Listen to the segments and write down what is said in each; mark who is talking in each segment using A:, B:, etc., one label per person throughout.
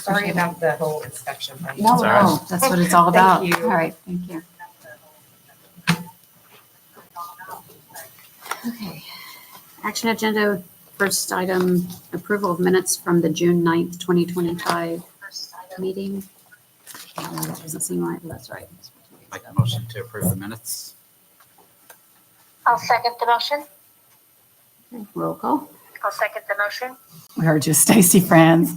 A: Sorry about the whole inspection. thing.
B: No,
C: That's all right.
B: no, that's what it's all
A: Thank
B: about.
A: you.
B: All right, thank you. Okay. Action agenda, first item, approval of minutes from the June 9th, 2025 meeting. Uh, That doesn't seem right, but that's right.
C: Make a motion to approve the minutes.
D: I'll second the motion.
B: Roll call.
D: I'll second the motion.
B: We heard you, Stacy Franz.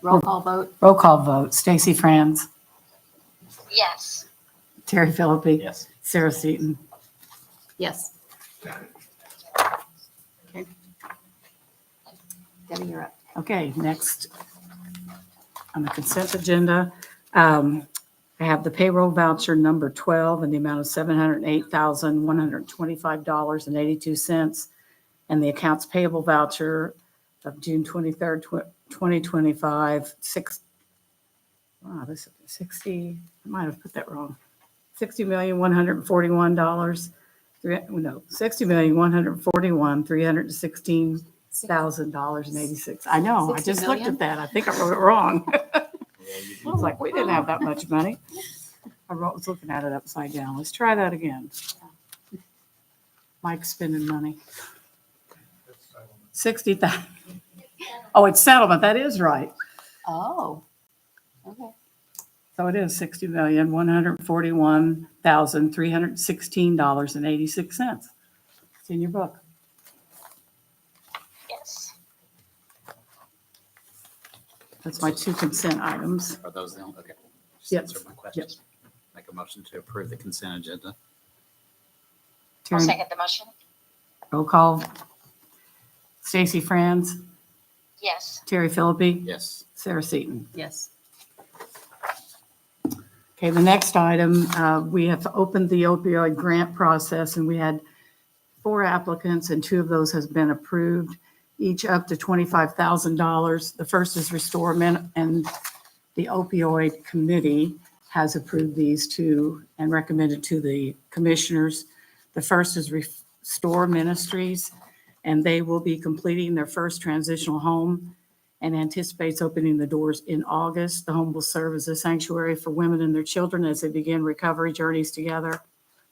B: Roll call vote.
E: Roll call vote. Stacy Franz,
D: Yes.
E: Terry Philippi,
C: Yes.
E: Sarah Seaton.
B: Yes. Okay. Debbie, you're up.
E: Okay, next on the consent agenda, um, I have the payroll voucher number 12 in the amount of $708,125.82 and the accounts payable voucher of June 23rd, tw- 2025, six, wow, this is 60, I might have put that wrong. $60,141, three- no, $60,141,316 thousand dollars and eighty-six. I know, I
B: Sixty
E: just looked
B: million?
E: at that. I think I wrote it wrong. I
C: Yeah, you do.
E: was like, we didn't have that much money. I wrote- was looking at it upside down. Let's try that again. Mike's spending money. Sixty thousand. Oh, it's settlement. That is right.
B: Oh, okay.
E: So it is sixty million, one hundred forty-one thousand, three hundred sixteen dollars and eighty-six cents. It's in your book.
D: Yes.
E: That's my two consent items.
C: Are those the only, okay. Just
E: Yep.
C: answer my questions. Make a motion to approve the consent agenda.
D: I'll
E: Terry,
D: second the motion.
E: roll call. Stacy Franz.
D: Yes.
E: Terry Philippi,
C: Yes.
E: Sarah Seaton.
B: Yes.
E: Okay, the next item, uh, we have opened the opioid grant process, and we had four applicants, and two of those has been approved, each up to $25,000. The first is Restore Men, and the opioid committee has approved these two and recommended to the commissioners. The first is Restore Ministries, and they will be completing their first transitional home and anticipates opening the doors in August. The home will serve as a sanctuary for women and their children as they begin recovery journeys together.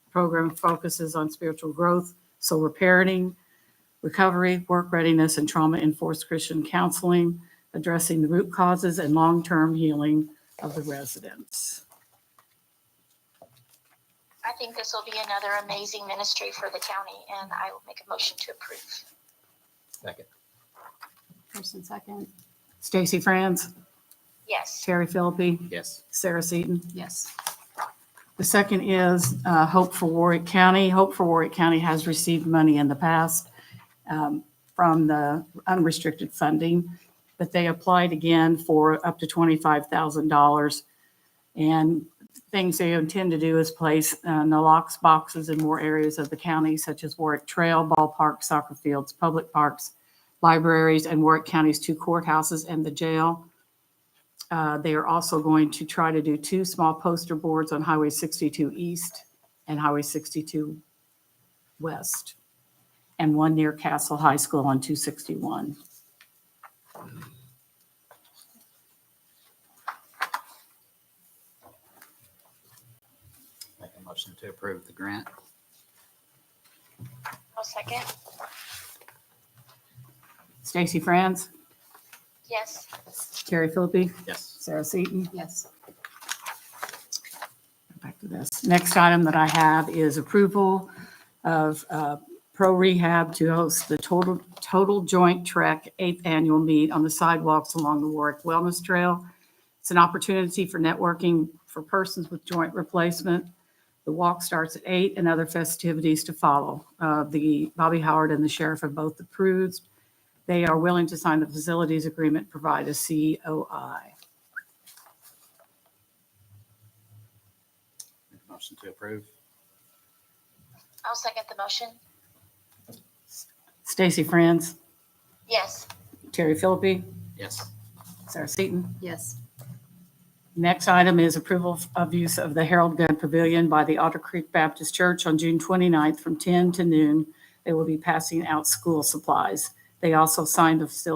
E: The program focuses on spiritual growth, sober parenting, recovery, work readiness, and trauma-enforced Christian counseling, addressing the root causes and long-term healing of the residents.
D: I think this will be another amazing ministry for the county and I will make a motion to approve.
C: Second.
B: First and second.
E: Stacy Franz,
D: Yes.
E: Terry Philippi,
C: Yes.
E: Sarah Seaton.
B: Yes.
E: The second is uh, Hope for Warwick County. Hope for Warwick County has received money in the past um, from the unrestricted funding, but they applied again for up to $25,000. And things they intend to do is place uh, Nalox boxes in more areas of the county, such as Warwick Trail, ballpark, soccer fields, public parks, libraries, and Warwick County's two courthouses and the jail. Uh, They are also going to try to do two small poster boards on Highway 62 East and Highway 62 West, and one near Castle High School on 261.
C: Make a motion to approve the grant.
D: I'll second.
E: Stacy Franz,
D: Yes.
E: Terry Philippi,
C: Yes.
E: Sarah Seaton.
B: Yes.
E: back to this. Next item that I have is approval of uh, Pro Rehab to host the Total, Total Joint Trek Eighth Annual Meet on the sidewalks along the Warwick Wellness Trail. It's an opportunity for networking for persons with joint replacement. The walk starts at eight and other festivities to follow. Uh, The Bobby Howard and the sheriff have both approved. They are willing to sign the facilities agreement, provide a COI.
C: Make a motion to approve.
D: I'll second the motion.
E: Stacy Franz,
D: Yes.
E: Terry Philippi,
C: Yes.
E: Sarah Seaton.
B: Yes.
E: Next item is approval of use of the Harold Gunn Pavilion by the Otter Creek Baptist Church on June 29th from 10 to noon. They will be passing out school supplies. They also signed the facility